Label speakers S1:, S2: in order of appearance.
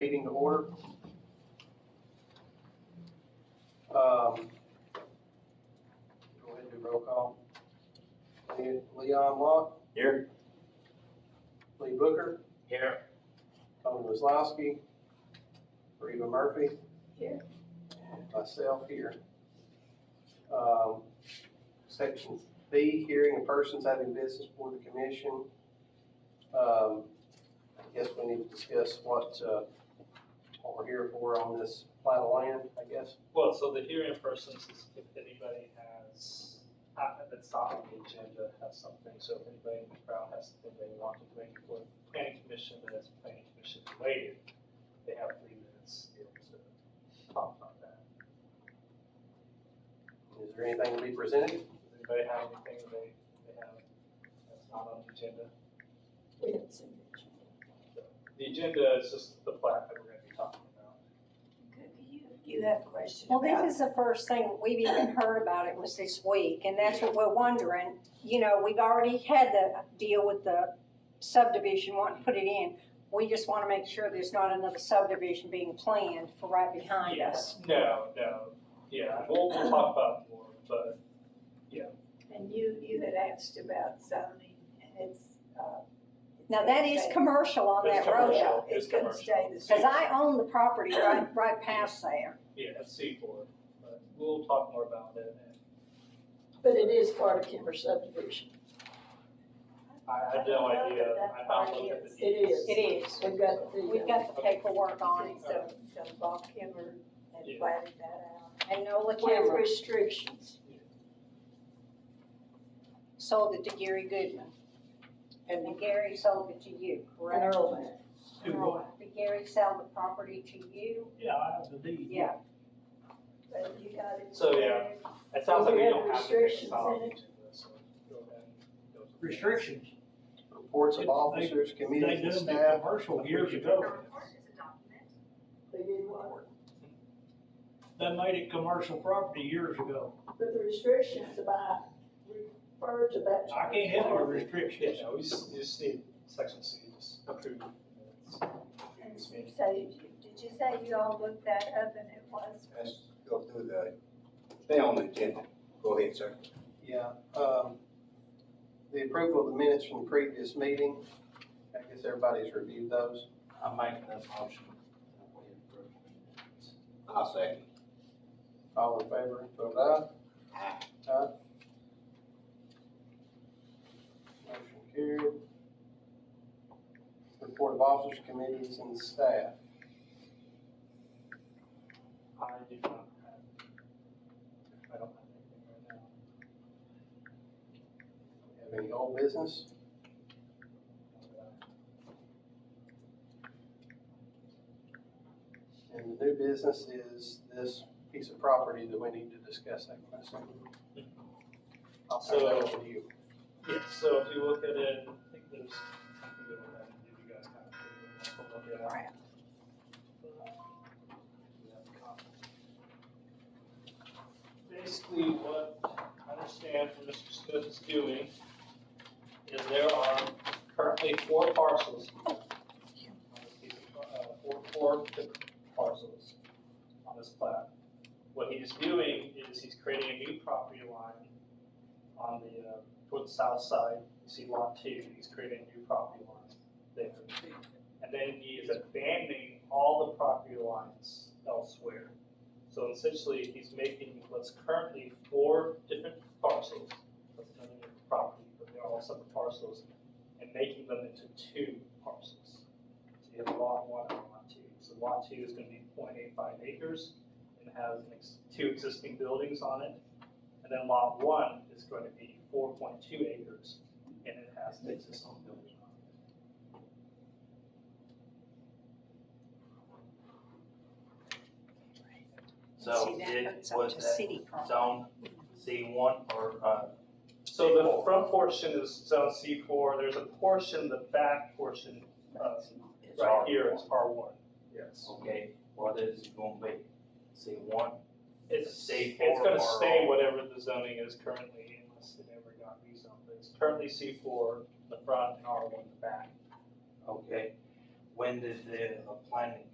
S1: order. Um, Go ahead and do roll call. Le- Leon Locke,
S2: Here.
S1: Lee Booker,
S2: Here.
S1: Tony Wazlowski, Reba Murphy.
S3: Here.
S1: and Myself here. Um, Section B, hearing of persons having business before the commission. Um, I guess we need to discuss what, uh, what we're here for on this plat of land, I guess.
S4: Well, so the hearing of persons is if anybody has, uh, that's not on the agenda, has something, so if anybody in the crowd has something they want to bring before the planning commission, that is planning commission related, they have three minutes to be able to talk about that.
S1: Is there anything to be presented?
S4: Does anybody have anything they, they have that's not on the agenda?
S3: We don't send it.
S4: The agenda is just the plat that we're gonna be talking about.
S3: Okay, do you, do you have a question
S5: Well,
S3: about?
S5: this is the first thing we've even heard about it was this week, and that's what we're wondering. You know, we've already had the deal with the subdivision, wanting to put it in. We just want to make sure there's not another subdivision being planned for right behind us.
S4: No, no, yeah, we'll, we'll talk about it more, but
S3: And you, you had asked about zoning, and it's, uh. it's
S5: Now,
S3: gonna
S5: that is
S3: stay-
S5: commercial on
S4: It's
S5: that road,
S4: commercial.
S5: though,
S3: Yeah, It's gonna
S4: commercial.
S3: stay the same.
S5: because I own the property right, right past there.
S4: yeah, it's C four, but we'll talk more about it and
S6: But it is part of Kimber subdivision.
S4: I had no idea, I found one at the.
S6: It is.
S5: It is.
S6: We've got
S5: We've
S6: the, uh,
S5: got the paperwork on it,
S3: So, so Bob Kimmer
S4: Yeah.
S3: had planted that out.
S5: and Nola
S6: with
S5: Cameron
S6: restrictions.
S5: sold it to Gary Goodman. And Gary sold it to you,
S6: And
S5: correct?
S6: Earl Mack.
S4: Two more.
S5: Did Gary sell Oh, the property to you?
S4: Yeah, I have the deed.
S5: Yeah.
S3: But you got it.
S4: So, yeah. It sounds like we don't have to take a solid
S6: Restrictions in
S4: action to this, so go ahead and go to the-
S7: restrictions.
S1: Reports of officers,
S7: They
S1: committees, and
S7: done the
S1: staff.
S7: commercial years ago.
S6: They did what?
S7: They made it commercial property years ago.
S6: But the restrictions about refer to that.
S7: I can't have our restrictions.
S4: Yeah, no, we just, you just need section C, just approve. the minutes.
S3: And So, did you say you all looked that up and it was?
S8: Let's go through the, stay on the agenda. Go ahead, sir.
S1: Yeah, um, the approval of the minutes from the previous meeting. I guess everybody's reviewed those.
S2: I'm making that motion. that we approve the minutes.
S8: I'll second.
S1: All in favor, vote aye.
S8: Aye.
S1: Aye. Motion carried. Report of officers, committees, and staff.
S4: I do not have, I don't have anything right now.
S1: Have any old business? And the new business is this piece of property that we need to discuss, I guess. I'll pass that over to you.
S4: Yeah, so if you look at it, I think there's something that we'll have to give you guys kind of. to look at.
S5: Crap.
S4: Basically, what I understand from Mr. Smith is doing is there are currently four parcels. on this piece of, uh, Four, four different parcels on this plat. What he's doing is he's creating a new property line on the, uh, toward the south side, you see lot two, he's creating a new property line there. And then he is abandoning all the property lines elsewhere. So essentially, he's making what's currently four different parcels, that's another different property, but they're all separate parcels, and making them into two parcels. So you have lot one and lot two. So lot two is gonna be 0.85 acres and has an ex- two existing buildings on it. And then lot one is going to be four point two acres, and it has an existing building on it.
S2: So
S5: See, that
S2: it
S5: hurts up
S2: was
S5: to
S2: that
S5: city property.
S2: zone C one or, uh,
S4: So the front portion is zone C four, there's a portion, the back portion, uh,
S2: it's
S4: right
S2: R
S4: here is
S2: one?
S4: R one. Yes.
S2: Okay, what is it gonna be? C one?
S4: It's,
S2: C four
S4: it's gonna
S2: or-
S4: stay whatever the zoning is currently, unless it ever got rezoned, but it's currently C four, the front, and R one, the back.
S2: Okay. When did the uh, planning